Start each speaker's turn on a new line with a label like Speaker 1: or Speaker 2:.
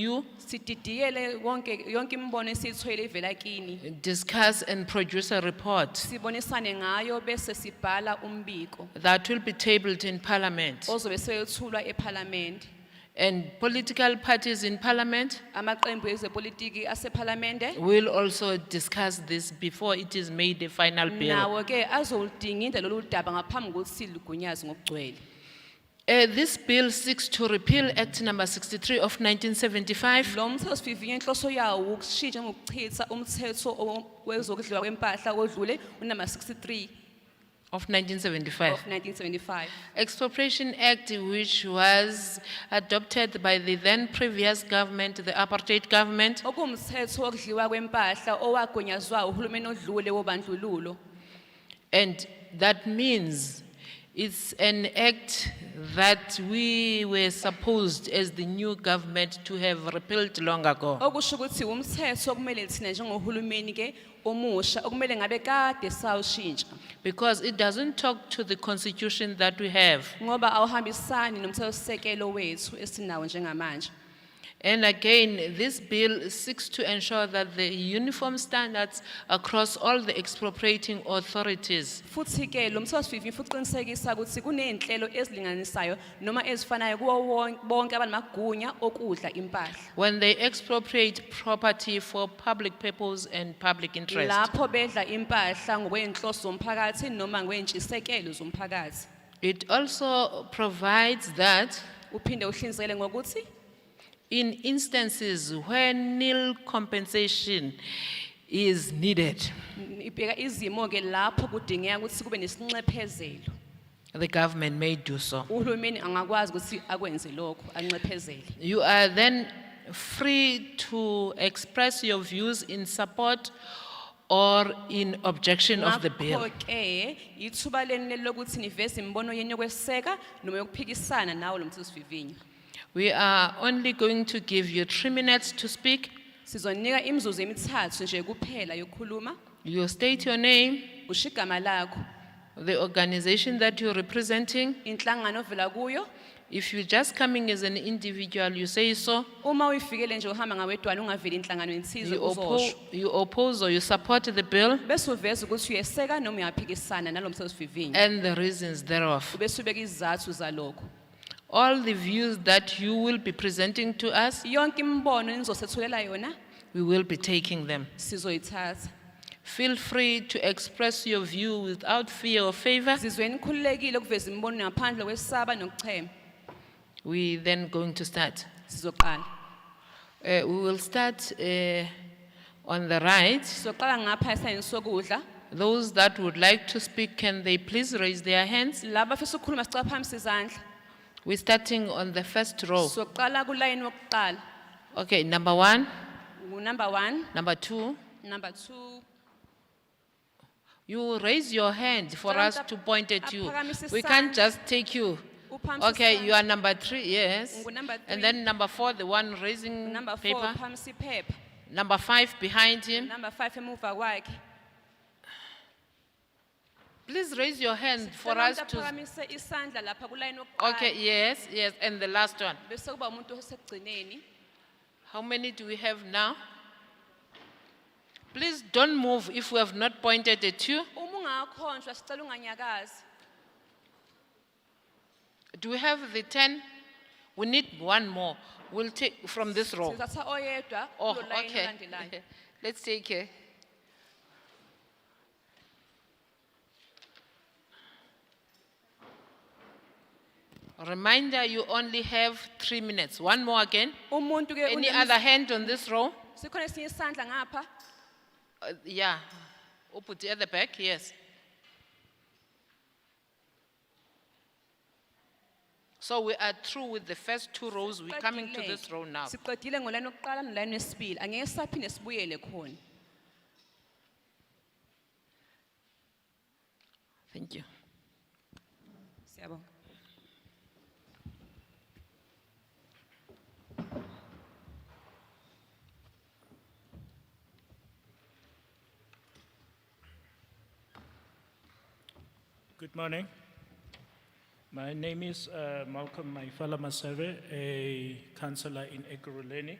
Speaker 1: you,
Speaker 2: sididiyele wonke yonke imibono esiyithwele ivela kini
Speaker 1: discuss and produce a report
Speaker 2: sibonisane ngayo bese sibhala umbiko
Speaker 1: that will be tabled in Parliament.
Speaker 2: ozobe seyethulwa ephalamende
Speaker 1: And political parties in Parliament
Speaker 2: amaqembu ezepolitiki asephalamende
Speaker 1: will also discuss this before it is made a final bill.
Speaker 2: nawo ke azoludinginda lolu daba ngaphambi kokuthi silugunyaze ngokugcwele
Speaker 1: Uh, this bill seeks to repeal Act number sixty-three of nineteen seventy-five
Speaker 2: lo mthethosivivinyo inhloso yawo ukushintsha ngokuchitha umthetho o- wezokudliwa kwempahla odlule unumber 63
Speaker 1: of nineteen seventy-five.
Speaker 2: of 1975
Speaker 1: Expropriation Act which was adopted by the then previous government, the apartheid government,
Speaker 2: okuwumthetho wokudliwa kwempahla owagunyazwa uhulumeni odlule wobandlululo
Speaker 1: And that means it's an act that we were supposed as the new government to have repealed long ago.
Speaker 2: okusho ukuthi umthetho okumele thina njengohulumeni ke omusha okumele ngabe kade sawushintsha
Speaker 1: Because it doesn't talk to the constitution that we have.
Speaker 2: ngoba awuhambisani nomthethosisekelo wethu esinawo njengamanje
Speaker 1: And again, this bill seeks to ensure that the uniform standards across all the expropriating authorities
Speaker 2: futhi ke lo mthethosivivinyo futhi uqinisekisa ukuthi kuney'nhlelo ezilinganisayo noma ezifanayo kuwo won- bonke abanamagunya okudla impahla
Speaker 1: when they expropriate property for public purpose and public interest.
Speaker 2: lapho bedla impahla ngokwey'nhloso zomphakathi noma ngwey'ntshisekelo zomphakathi
Speaker 1: It also provides that
Speaker 2: uphinde uhlinzekele ngokuthi
Speaker 1: in instances where nil compensation is needed,
Speaker 2: n- ibheka izimo-ke lapho kudingeka ukuthi kube nesinxephezelo
Speaker 1: the government may do so.
Speaker 2: uhulumeni angakwazi ukuthi akwenze lokho anxephezele
Speaker 1: You are then free to express your views in support or in objection of the bill.
Speaker 2: ke ithuba leni leli lokuthi niveze imibono yenu yokweseka noma yokuphikisana nawo lo mthethosivivinyo
Speaker 1: We are only going to give you three minutes to speak.
Speaker 2: sizonika imizuzu emithathu nje kuphela yokukhuluma
Speaker 1: You state your name,
Speaker 2: usho igama lakho
Speaker 1: the organization that you're representing.
Speaker 2: inhlangano ovela kuyo
Speaker 1: If you're just coming as an individual, you say so.
Speaker 2: uma uyifikele nje uhamba ngawedwana ungaveli inhlangano enthize
Speaker 1: You oppo-
Speaker 2: uzosho
Speaker 1: you oppose or you support the bill.
Speaker 2: bese uveza ukuthi uyeseka noma uyaphikisana nalo mthethosivivinyo
Speaker 1: and the reasons thereof.
Speaker 2: ubese ubeka izizathu zalokho
Speaker 1: All the views that you will be presenting to us,
Speaker 2: yonke imibono enizosethulela yona
Speaker 1: we will be taking them.
Speaker 2: sizoyithatha
Speaker 1: Feel free to express your view without fear or favor.
Speaker 2: sizweni khululekile ukuveza imibono ngaphandle kwesaba nokuchema
Speaker 1: We then going to start.
Speaker 2: sizoqala
Speaker 1: Uh, we will start uh, on the right.
Speaker 2: sizoqala ngapha esayini sokudla
Speaker 1: Those that would like to speak, can they please raise their hands?
Speaker 2: laba afisa ukukhuluma sicaphambisa izandla
Speaker 1: We're starting on the first row.
Speaker 2: sizoqala kulayini wokuqala
Speaker 1: Okay, number one,
Speaker 2: ngunumber one
Speaker 1: number two.
Speaker 2: number two
Speaker 1: You raise your hand for us to point at you. We can't just take you.
Speaker 2: uphakamisa
Speaker 1: Okay, you
Speaker 2: isandla.
Speaker 1: are number three, yes.
Speaker 2: Ngunumber
Speaker 1: And
Speaker 2: three.
Speaker 1: then number four, the one raising
Speaker 2: number four
Speaker 1: paper.
Speaker 2: uphakamisa iphepha
Speaker 1: Number five behind him.
Speaker 2: number five emuva kwakhe
Speaker 1: Please raise your hand for
Speaker 2: Sicela
Speaker 1: us
Speaker 2: umuntu
Speaker 1: to.
Speaker 2: aphakamise isandla lapha kulayini
Speaker 1: Okay,
Speaker 2: wokuqala
Speaker 1: yes, yes. And the last one.
Speaker 2: bese kuba umuntu osekugcineni
Speaker 1: How many do we have now? Please don't move if we have not pointed at you.
Speaker 2: uma ungakhonjwa sicela unganyakazi
Speaker 1: Do we have the ten? We need one more. We'll take from this row.
Speaker 2: sizatha oyedwa
Speaker 1: Oh,
Speaker 2: kulo layini
Speaker 1: okay.
Speaker 2: olandelayo
Speaker 1: Let's take it. Reminder, you only have three minutes. One more again.
Speaker 2: umuntu ke
Speaker 1: Any
Speaker 2: unemis-
Speaker 1: other hand on this row?
Speaker 2: sikhona esinye isandla ngapha
Speaker 1: Uh, yeah. Open at the back, yes. So we are through with the first two rows. We're coming to this row now.
Speaker 2: siqedile ngolayini wokuqala nolayini wesibili angeke saphinde sibuyele khona
Speaker 1: Thank you.
Speaker 2: siyabonga
Speaker 3: Good morning. My name is uh, Malcolm Maifala Maseve, a councillor in Ekurhuleni.